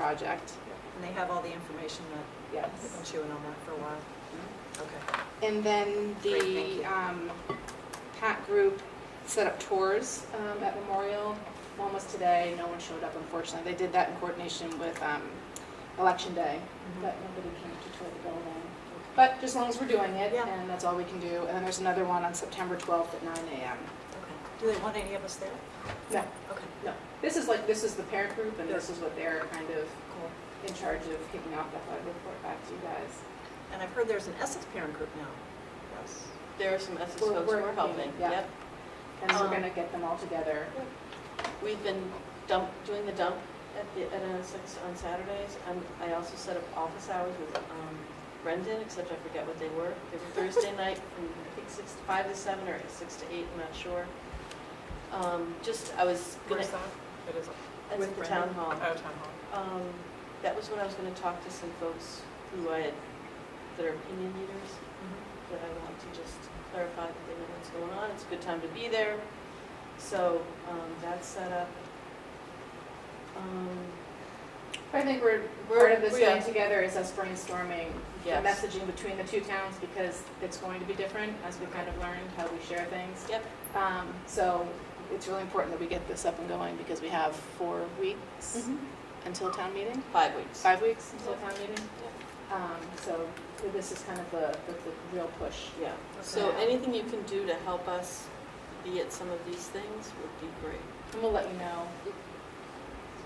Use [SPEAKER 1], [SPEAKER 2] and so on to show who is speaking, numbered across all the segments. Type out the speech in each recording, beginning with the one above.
[SPEAKER 1] project.
[SPEAKER 2] And they have all the information that they've been
[SPEAKER 1] Yes.
[SPEAKER 2] chewing on that for a while.
[SPEAKER 3] Mm-hmm.
[SPEAKER 2] Okay.
[SPEAKER 1] And then
[SPEAKER 2] Great, thank
[SPEAKER 1] the
[SPEAKER 2] you.
[SPEAKER 1] um, PAC group set up tours um, at Memorial. One was today, no one showed up unfortunately. They did that in coordination with um, Election Day,
[SPEAKER 2] Mm-hmm.
[SPEAKER 1] but nobody came to tour the building. But just as long as we're doing it,
[SPEAKER 2] Yeah.
[SPEAKER 1] and that's all we can do. And then there's another one on September 12th at 9 AM.
[SPEAKER 2] Okay. Do they want any of us there?
[SPEAKER 1] No,
[SPEAKER 2] Okay,
[SPEAKER 1] no. This is like, this is the parent group, and this
[SPEAKER 2] Sure.
[SPEAKER 1] is what they're kind of
[SPEAKER 2] cool.
[SPEAKER 1] in charge of kicking off. I thought I'd report back to you guys.
[SPEAKER 2] And I've heard there's an Essex parent group now. Yes.
[SPEAKER 3] There are some Essex
[SPEAKER 1] We're-
[SPEAKER 3] folks who
[SPEAKER 1] we're
[SPEAKER 3] are helping.
[SPEAKER 1] helping, yeah.
[SPEAKER 3] Yep.
[SPEAKER 1] And we're
[SPEAKER 3] Um,
[SPEAKER 1] gonna get them all together.
[SPEAKER 3] We've been dump, doing the dump at the, at Essex on Saturdays. And I also set up office hours with um, Brendan, except I forget what they were. They were Thursday night from, I think, six to five to seven or six to eight, I'm not sure. Um, Just, I was gonna,
[SPEAKER 4] Where's that? It is,
[SPEAKER 3] that's
[SPEAKER 2] With
[SPEAKER 3] at the town
[SPEAKER 2] Brendan?
[SPEAKER 4] oh,
[SPEAKER 3] hall.
[SPEAKER 4] town hall.
[SPEAKER 3] Um, that was when I was gonna talk to some folks who I, had- that are opinion leaders,
[SPEAKER 2] Mm-hmm.
[SPEAKER 3] that I want to just clarify that they know what's going on. It's a good time to be there. So, um, that's set up. Um,
[SPEAKER 1] I think we're,
[SPEAKER 3] We're-
[SPEAKER 1] part of this
[SPEAKER 3] we are.
[SPEAKER 1] thing together is us brainstorming the
[SPEAKER 3] Yes.
[SPEAKER 1] messaging between the two towns because it's going to be different as we kind of learned how we share things.
[SPEAKER 3] Yep,
[SPEAKER 1] Um, so it's really important that we get this up and going because we have four weeks until town meeting,
[SPEAKER 3] five weeks.
[SPEAKER 1] five weeks until
[SPEAKER 3] Yep.
[SPEAKER 1] town meeting. Um, so this is kind of the, the, the real push.
[SPEAKER 3] Yeah, so
[SPEAKER 2] Okay.
[SPEAKER 3] anything you can do to help us be at some of these things would be great.
[SPEAKER 1] And we'll let you know.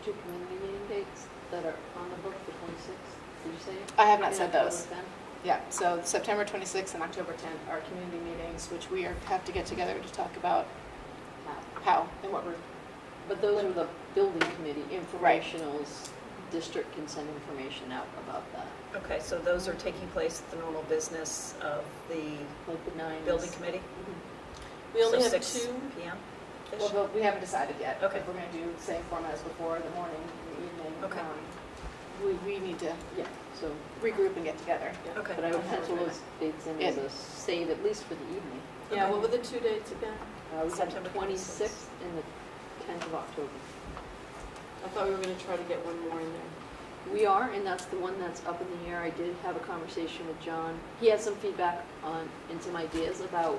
[SPEAKER 5] two community meeting dates that are on the book, the 26th, did you say?
[SPEAKER 1] I have not
[SPEAKER 5] In
[SPEAKER 1] said
[SPEAKER 5] October
[SPEAKER 1] those.
[SPEAKER 5] then?
[SPEAKER 1] Yeah, so September 26th and October 10th are community meetings, which we are, have to get together to talk about how and what we're
[SPEAKER 5] But those are the building committee informationals, district can send information out about that,
[SPEAKER 2] Okay, so those are taking place at the normal business of the
[SPEAKER 5] like the nine. is-
[SPEAKER 2] building committee?
[SPEAKER 3] We only
[SPEAKER 2] So
[SPEAKER 3] have
[SPEAKER 2] 6
[SPEAKER 3] two,
[SPEAKER 2] PM?
[SPEAKER 1] Well,
[SPEAKER 2] -ish?
[SPEAKER 1] but we haven't decided yet.
[SPEAKER 2] Okay.
[SPEAKER 1] If we're gonna do the same format as before, the morning, the evening.
[SPEAKER 2] Okay.
[SPEAKER 1] um, We, we need to
[SPEAKER 5] Yeah, so,
[SPEAKER 1] regroup and get together.
[SPEAKER 2] Okay.
[SPEAKER 5] but I would
[SPEAKER 1] Okay.
[SPEAKER 5] pencil those dates in as
[SPEAKER 1] Yeah.
[SPEAKER 5] a save, at least for the evening.
[SPEAKER 3] yeah, what were the two dates again?
[SPEAKER 5] Uh, We have
[SPEAKER 2] September
[SPEAKER 5] the
[SPEAKER 2] 26th.
[SPEAKER 5] 26th and the 10th of October.
[SPEAKER 3] I thought we were gonna try to get one more in there.
[SPEAKER 5] We are, and that's the one that's up in the air. I did have a conversation with John. He had some feedback on, and some ideas about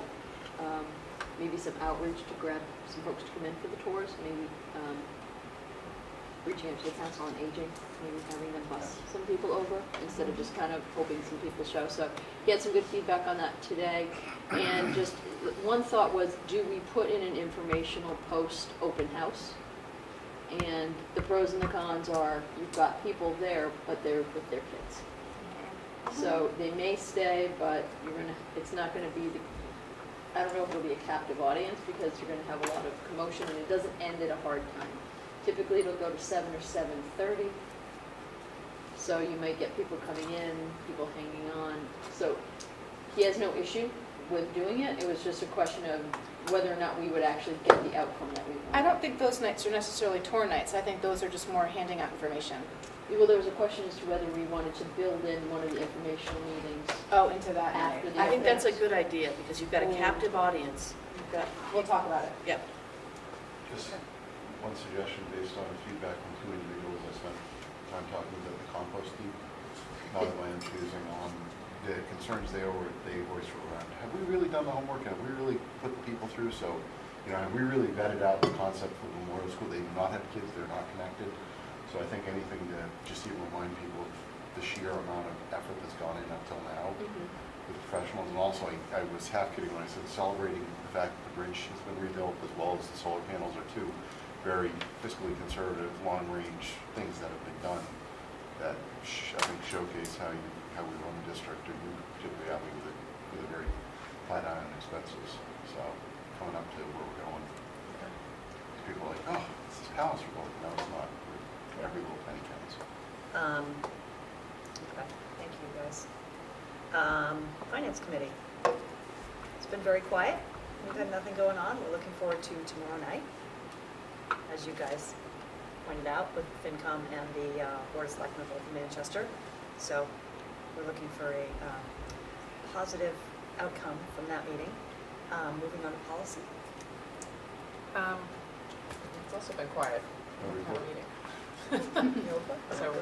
[SPEAKER 5] um, maybe some outreach to grab some folks to come in for the tours, maybe um, reaching out to the council on aging, maybe having them bus some people over instead of just kind of hoping some people show. So he had some good feedback on that today. And just, one thought was, do we put in an informational post open house? And the pros and the cons are, you've got people there, but they're with their kids.
[SPEAKER 1] Mm-hmm.
[SPEAKER 5] So they may stay, but you're gonna, it's not gonna be, the- I don't know if it'll be a captive audience, because you're gonna have a lot of commotion, and it doesn't end at a hard time. Typically, it'll go to seven or seven-thirty, so you might get people coming in, people hanging on. So he has no issue with doing it, it was just a question of whether or not we would actually get the outcome that we want.
[SPEAKER 1] I don't think those nights are necessarily tour nights. I think those are just more handing out information.
[SPEAKER 5] Well, there was a question as to whether we wanted to build in one of the informational meetings.
[SPEAKER 1] Oh, into that
[SPEAKER 5] After
[SPEAKER 1] night.
[SPEAKER 5] the-
[SPEAKER 3] I think that's a good idea, because you've got a
[SPEAKER 5] Or-
[SPEAKER 3] captive audience. You've got,
[SPEAKER 1] We'll talk about it.
[SPEAKER 3] yep,
[SPEAKER 6] Just one suggestion based on feedback from two individuals I spent time talking about the composting, not of my own choosing, on the concerns they were, they voiced were around, have we really done the homework? Have we really put the people through? So, you know, have we really vetted out the concept for Memorial School? They do not have kids, they're not connected. So I think anything to just even remind people of the sheer amount of effort that's gone in up till now with professionals, and also I, I was half kidding when I said celebrating the fact that the bridge has been rebuilt, as well as the solar panels are two very fiscally conservative, long-range things that have been done that sh- I think showcase how you, how we run the district, and particularly having with, a- with a very flat eye on expenses, so coming up to where we're going. People are like, oh, it's this palace we're building, no, it's not, every little penny counts.
[SPEAKER 2] Um, okay, thank you, guys. Um, Finance Committee. It's been very quiet. We've had nothing going on. We're looking forward to tomorrow night, as you guys pointed out, with FinCom and the uh, Board of Selectmen of Old Manchester. So we're looking for a um, positive outcome from that meeting. Um, Moving on to policy.
[SPEAKER 4] Um, It's also been quiet,
[SPEAKER 6] No
[SPEAKER 4] town
[SPEAKER 6] report.
[SPEAKER 4] meeting.
[SPEAKER 2] Neola?
[SPEAKER 4] So